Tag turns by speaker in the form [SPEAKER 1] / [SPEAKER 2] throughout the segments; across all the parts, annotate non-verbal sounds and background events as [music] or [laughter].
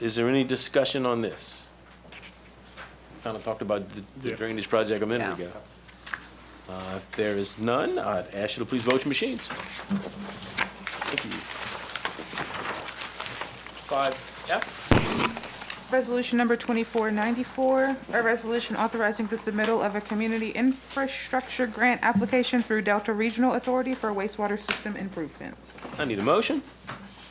[SPEAKER 1] Is there any discussion on this? Kind of talked about the- the
[SPEAKER 2] Yeah.
[SPEAKER 1] drainage project a minute
[SPEAKER 3] Yeah.
[SPEAKER 1] ago. Uh, If there is none, I'd ask you to please vote your machines. Thank you. Five F,
[SPEAKER 4] Resolution number 2494, a resolution authorizing the submittal of a community infrastructure grant application through Delta Regional Authority for wastewater system improvements.
[SPEAKER 1] I need a motion.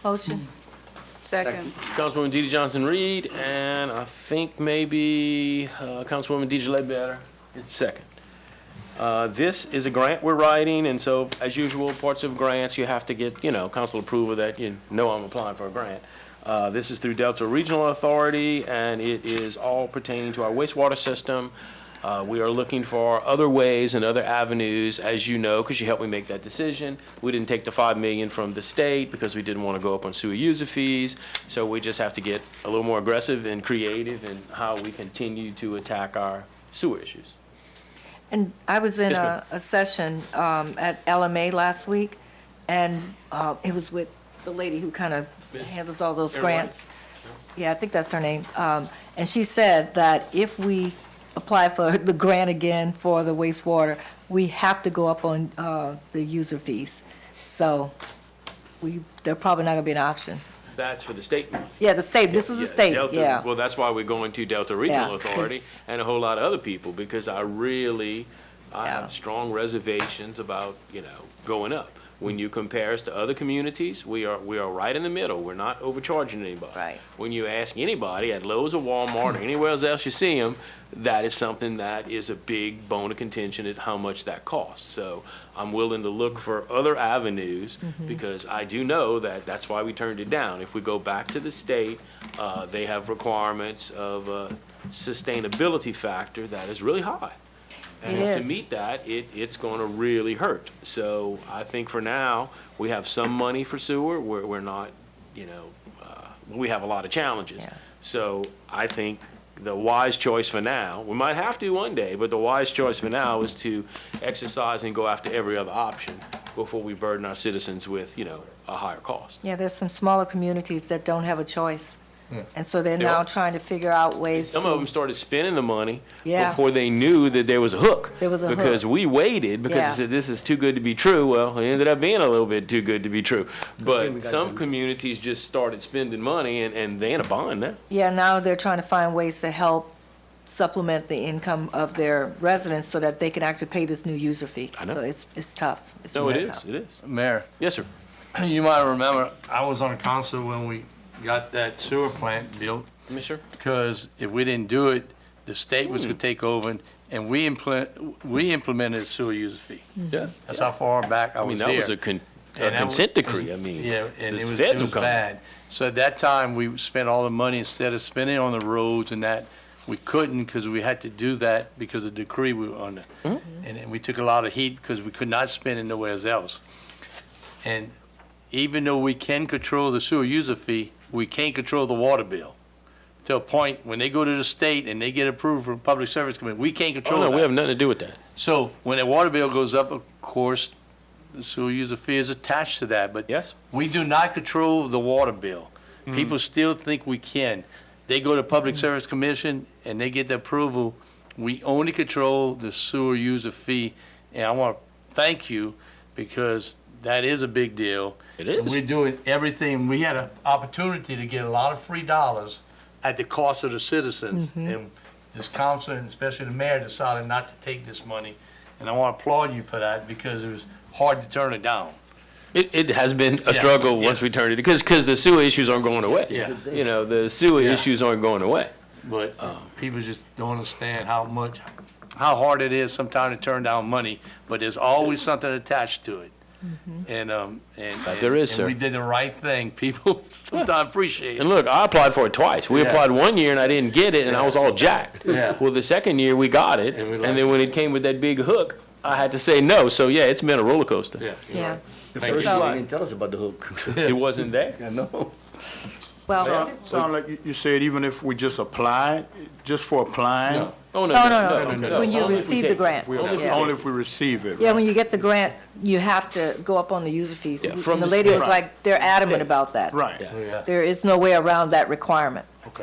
[SPEAKER 3] Motion.
[SPEAKER 5] Mm-hmm.
[SPEAKER 3] Second.
[SPEAKER 1] Councilwoman DeeDee Johnson-Reed, and I think maybe uh, Councilwoman Deidre Ledbetter is second. Uh, This is a grant we're writing, and so, as usual, parts of grants, you have to get, you know, council approval that you know I'm applying for a grant. Uh, This is through Delta Regional Authority, and it is all pertaining to our wastewater system. Uh, We are looking for other ways and other avenues, as you know, because you helped me make that decision. We didn't take the five million from the state because we didn't want to go up on sewer user fees. So we just have to get a little more aggressive and creative in how we continue to attack our sewer issues.
[SPEAKER 5] And I was in
[SPEAKER 1] Yes, ma'am.
[SPEAKER 5] a, a session um, at LMA last week, and uh, it was with the lady who kind of
[SPEAKER 1] Miss
[SPEAKER 5] handles all those
[SPEAKER 1] Fairway?
[SPEAKER 5] grants. Yeah, I think that's her name. Um, And she said that if we apply for [laughs] the grant again for the wastewater, we have to go up on uh, the user fees. So we, they're probably not going to be an option.
[SPEAKER 1] That's for the state money.
[SPEAKER 5] Yeah, the state, this is the
[SPEAKER 1] Yeah,
[SPEAKER 5] state,
[SPEAKER 1] Delta-
[SPEAKER 5] yeah.
[SPEAKER 1] Well, that's why we're going to Delta Regional
[SPEAKER 5] Yeah,
[SPEAKER 1] Authority
[SPEAKER 5] 'cause-
[SPEAKER 1] and a whole lot of other people, because I really, I
[SPEAKER 5] Yeah.
[SPEAKER 1] have strong reservations about, you know, going up. When you compare us to other communities, we are, we are right in the middle. We're not overcharging anybody.
[SPEAKER 5] Right.
[SPEAKER 1] When you ask anybody at Lowe's or Walmart or anywhere else you see them, that is something that is a big bone of contention at how much that costs. So I'm willing to look for other avenues
[SPEAKER 5] Mm-hmm.
[SPEAKER 1] because I do know that that's why we turned it down. If we go back to the state, uh, they have requirements of a sustainability factor that is really high. And
[SPEAKER 5] It
[SPEAKER 1] to
[SPEAKER 5] is.
[SPEAKER 1] meet that, it, it's gonna really hurt. So I think for now, we have some money for sewer, we're, we're not, you know, uh, we have a lot of challenges.
[SPEAKER 5] Yeah.
[SPEAKER 1] So I think the wise choice for now, we might have to one day, but the wise choice for now is to exercise and go after every other option before we burden our citizens with, you know, a higher cost.
[SPEAKER 5] Yeah, there's some smaller communities that don't have a choice. And so they're
[SPEAKER 1] They
[SPEAKER 5] now
[SPEAKER 1] are.
[SPEAKER 5] trying to figure out ways to.
[SPEAKER 1] Some of them started spending the money
[SPEAKER 5] Yeah.
[SPEAKER 1] before they knew that there was a hook.
[SPEAKER 5] There was a hook.
[SPEAKER 1] Because we waited because
[SPEAKER 5] Yeah.
[SPEAKER 1] they said, this is too good to be true. Well, it ended up being a little bit too good to be true. But some communities just started spending money and, and they in a bond now.
[SPEAKER 5] Yeah, now they're trying to find ways to help supplement the income of their residents so that they can actually pay this new user fee.
[SPEAKER 1] know.
[SPEAKER 5] So it's, it's tough. It's
[SPEAKER 1] So it
[SPEAKER 5] real
[SPEAKER 1] is,
[SPEAKER 5] tough.
[SPEAKER 1] it is.
[SPEAKER 2] Mayor, [clears throat]
[SPEAKER 1] Yes, sir.
[SPEAKER 2] you might remember, I was on council when we got that sewer plant built,
[SPEAKER 1] Yes, sir.
[SPEAKER 2] because if we didn't do it, the state was gonna take over, and- and we implement, we implemented a sewer user fee.
[SPEAKER 1] Yeah.
[SPEAKER 2] That's how far back
[SPEAKER 1] Hmm.
[SPEAKER 2] I
[SPEAKER 1] I mean,
[SPEAKER 2] was there.
[SPEAKER 1] that was a con, a
[SPEAKER 2] And that was-
[SPEAKER 1] consent decree, I mean.
[SPEAKER 2] Yeah, and
[SPEAKER 1] the
[SPEAKER 2] it was,
[SPEAKER 1] feds
[SPEAKER 2] it
[SPEAKER 1] will
[SPEAKER 2] was
[SPEAKER 1] come.
[SPEAKER 2] bad. So at that time, we spent all the money, instead of spending on the roads and that, we couldn't because we had to do that because of the decree we were under. And
[SPEAKER 1] Mm-hmm.
[SPEAKER 2] then we took a lot of heat because we could not spend it nowhere else. And even though we can control the sewer user fee, we can't control the water bill. To a point, when they go to the state and they get approved from Public Service Committee, we can't
[SPEAKER 1] Oh,
[SPEAKER 2] control
[SPEAKER 1] no,
[SPEAKER 2] that.
[SPEAKER 1] we have nothing to do with that.
[SPEAKER 2] So when a water bill goes up, of course, the sewer user fee is attached to that, but.
[SPEAKER 1] Yes.
[SPEAKER 2] We do not control the water bill. People still think we can. They go to Public Service Commission and they get the approval. We only control the sewer user fee. And I want to thank you because that is a big deal.
[SPEAKER 1] It is.
[SPEAKER 2] And We're doing everything. We had an opportunity to get a lot of free dollars at the cost of the citizens.
[SPEAKER 1] Mm-hmm.
[SPEAKER 2] And this council, and especially the mayor, decided not to take this money. And I want to applaud you for that because it was hard to turn it down.
[SPEAKER 1] It, it has been a
[SPEAKER 2] Yeah,
[SPEAKER 1] struggle
[SPEAKER 2] yeah.
[SPEAKER 1] once we turned it, because, because the sewer issues aren't going away.
[SPEAKER 2] Yeah.
[SPEAKER 1] You know, the sewer
[SPEAKER 2] Yeah.
[SPEAKER 1] issues aren't going away.
[SPEAKER 2] But
[SPEAKER 1] Um.
[SPEAKER 2] people just don't understand how much, how hard it is sometimes to turn down money, but there's always something attached to it. And, um, and.
[SPEAKER 1] But Mm-hmm. Uh, there is,
[SPEAKER 2] and
[SPEAKER 1] sir.
[SPEAKER 2] we did the right thing. [laughs] People sometimes appreciate
[SPEAKER 1] And
[SPEAKER 2] it.
[SPEAKER 1] look, I applied for it twice. We
[SPEAKER 2] Yeah.
[SPEAKER 1] applied one year and I didn't get it, and I was all jacked.
[SPEAKER 2] Yeah.
[SPEAKER 1] Well, the second year we got it,
[SPEAKER 2] And we
[SPEAKER 1] and
[SPEAKER 2] liked
[SPEAKER 1] then
[SPEAKER 2] it.
[SPEAKER 1] when it came with that big hook, I had to say no. So yeah, it's been a roller coaster.
[SPEAKER 2] Yeah.
[SPEAKER 5] Yeah.
[SPEAKER 2] Thank
[SPEAKER 5] So-
[SPEAKER 1] you.
[SPEAKER 6] didn't tell us about the hook.
[SPEAKER 1] It wasn't there.
[SPEAKER 6] I know.
[SPEAKER 5] Well,
[SPEAKER 6] Sound- Sound like you- you said even if we just applied, just for applying,
[SPEAKER 1] Oh, no, no,
[SPEAKER 5] no, no,
[SPEAKER 1] no,
[SPEAKER 5] no,
[SPEAKER 1] no.
[SPEAKER 5] when
[SPEAKER 1] Only
[SPEAKER 5] you
[SPEAKER 1] if we
[SPEAKER 5] receive
[SPEAKER 1] take
[SPEAKER 5] the
[SPEAKER 1] it.
[SPEAKER 5] grant.
[SPEAKER 6] we-
[SPEAKER 1] Only if we
[SPEAKER 5] Yeah.
[SPEAKER 6] only if we receive it.
[SPEAKER 5] Yeah, when you get the grant, you have to go up on the user fees.
[SPEAKER 1] Yeah,
[SPEAKER 5] And
[SPEAKER 1] from
[SPEAKER 5] the
[SPEAKER 1] the
[SPEAKER 5] lady was
[SPEAKER 1] state.
[SPEAKER 5] like, they're adamant about that.
[SPEAKER 6] Right.
[SPEAKER 1] Yeah.
[SPEAKER 5] There is no way around that requirement.